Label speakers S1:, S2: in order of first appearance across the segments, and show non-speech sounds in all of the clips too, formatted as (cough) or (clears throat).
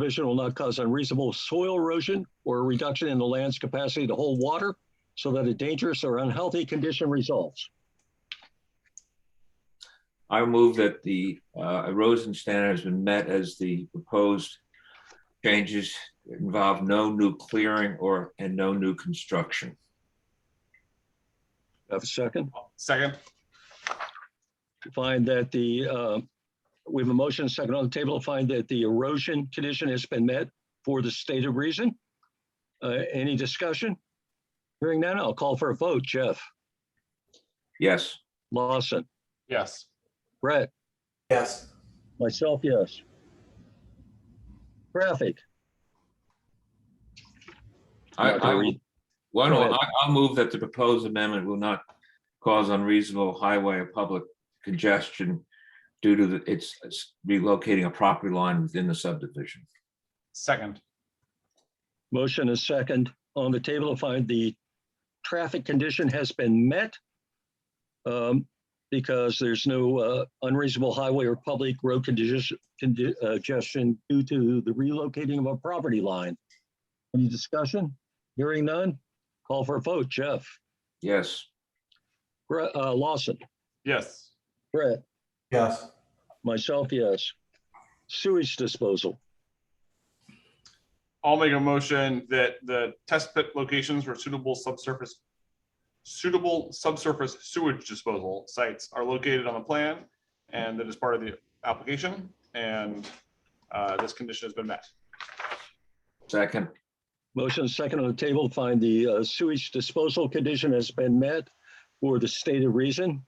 S1: Provision will not cause unreasonable soil erosion or a reduction in the land's capacity to hold water so that a dangerous or unhealthy condition results.
S2: I move that the uh, erosion standard has been met as the proposed changes involve no new clearing or, and no new construction.
S1: Have a second?
S3: Second,
S1: Find that the, uh, we have a motion, second on the table, to find that the erosion condition has been met for the stated reason. Uh, Any discussion? Hearing none, I'll call for a vote. Jeff,
S2: Yes,
S1: Lawson,
S3: yes.
S1: Brett,
S4: yes,
S1: Myself, yes. Traffic,
S2: I,
S1: Not gonna
S2: I, will-
S1: read.
S2: well,
S1: Go
S2: no,
S1: ahead.
S2: I, I'll move that the proposed amendment will not cause unreasonable highway or public congestion due to the, it's it's relocating a property line within the subdivision.
S3: Second,
S1: motion is second on the table to find the traffic condition has been met. um, Because there's no uh, unreasonable highway or public road condition, condi- uh, congestion due to the relocating of a property line. Any discussion? Hearing none? Call for a vote. Jeff,
S2: Yes,
S1: Bre- uh, Lawson,
S3: yes.
S1: Brett,
S4: yes,
S1: myself, yes. Sewage disposal.
S3: I'll make a motion that the test pit locations for suitable subsurface suitable subsurface sewage disposal sites are located on the plan and that is part of the application and uh, this condition has been met.
S2: second, (clears throat)
S1: Motion second on the table, find the uh, sewage disposal condition has been met for the stated reason.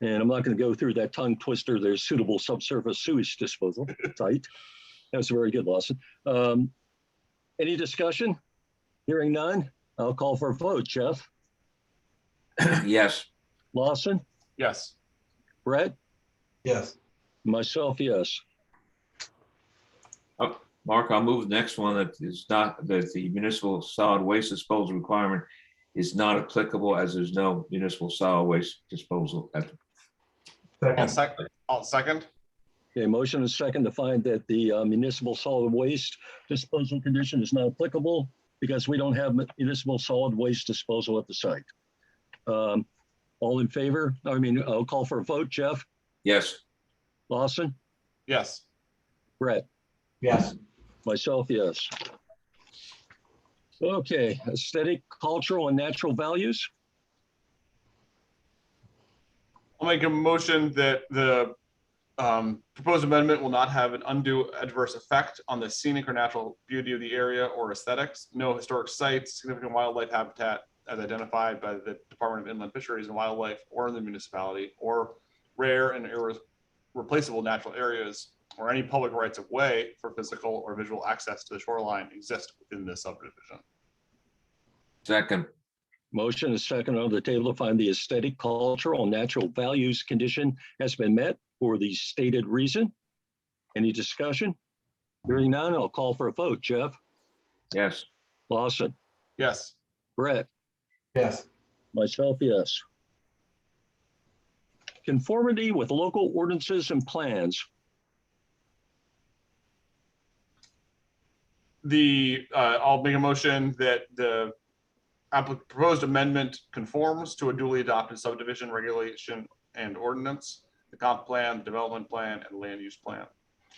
S1: And I'm not going to go through that tongue twister, there's suitable subsurface sewage disposal site. That's very good, Lawson. Um, Any discussion? Hearing none, I'll call for a vote. Jeff,
S2: yes,
S1: Lawson,
S3: Yes,
S1: Brett,
S4: yes,
S1: myself, yes.
S2: Mark, I'll move the next one that is not, that the municipal solid waste disposal requirement is not applicable as there's no municipal solid waste disposal. at-
S4: second,
S3: I'll second, I'll second,
S1: Okay, motion is second to find that the uh, municipal solid waste disposal condition is not applicable because we don't have municipal solid waste disposal at the site. Um, All in favor? I mean, I'll call for a vote. Jeff,
S2: Yes,
S1: Lawson,
S3: yes.
S1: Brett,
S4: yes,
S1: myself, yes. Okay, aesthetic, cultural, and natural values.
S3: I'll make a motion that the um, proposed amendment will not have an undue adverse effect on the scenic or natural beauty of the area or aesthetics. No historic sites, significant wildlife habitat as identified by the Department of Inland Fisheries and Wildlife or in the municipality, or rare and irreplaceable natural areas, or any public rights of way for physical or visual access to the shoreline exist within this subdivision.
S2: second,
S1: Motion is second on the table to find the aesthetic, cultural, and natural values condition has been met for the stated reason. Any discussion? Hearing none, I'll call for a vote. Jeff,
S2: yes,
S1: Lawson,
S3: Yes,
S1: Brett,
S4: yes,
S1: myself, yes. Conformity with local ordinances and plans.
S3: the, uh, I'll make a motion that the applic- proposed amendment conforms to a duly adopted subdivision regulation and ordinance, the comp plan, development plan, and land use plan.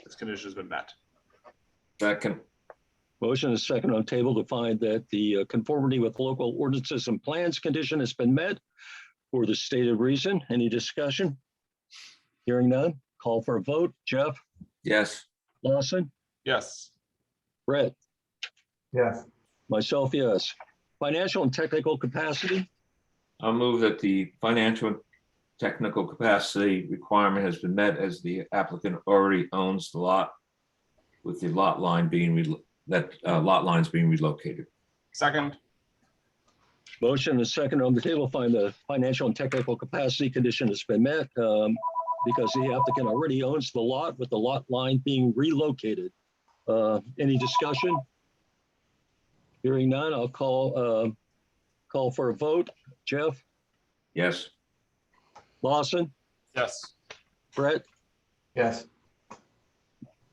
S3: This condition has been met.
S2: second,
S1: Motion is second on the table to find that the uh, conformity with local ordinances and plans condition has been met for the stated reason. Any discussion? Hearing none, call for a vote. Jeff,
S2: yes,
S1: Lawson,
S3: Yes,
S1: Brett,
S4: yes,
S1: myself, yes. Financial and technical capacity,
S2: I'll move that the financial and technical capacity requirement has been met as the applicant already owns the lot with the lot line being, relo- that uh, lot line is being relocated.
S3: second,
S1: motion is second on the table, find the financial and technical capacity condition has been met um, because the applicant already owns the lot with the lot line being relocated. Uh, Any discussion? Hearing none, I'll call, uh, call for a vote. Jeff,
S2: Yes,
S1: Lawson,
S3: yes.
S1: Brett,
S4: yes,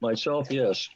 S1: myself, yes.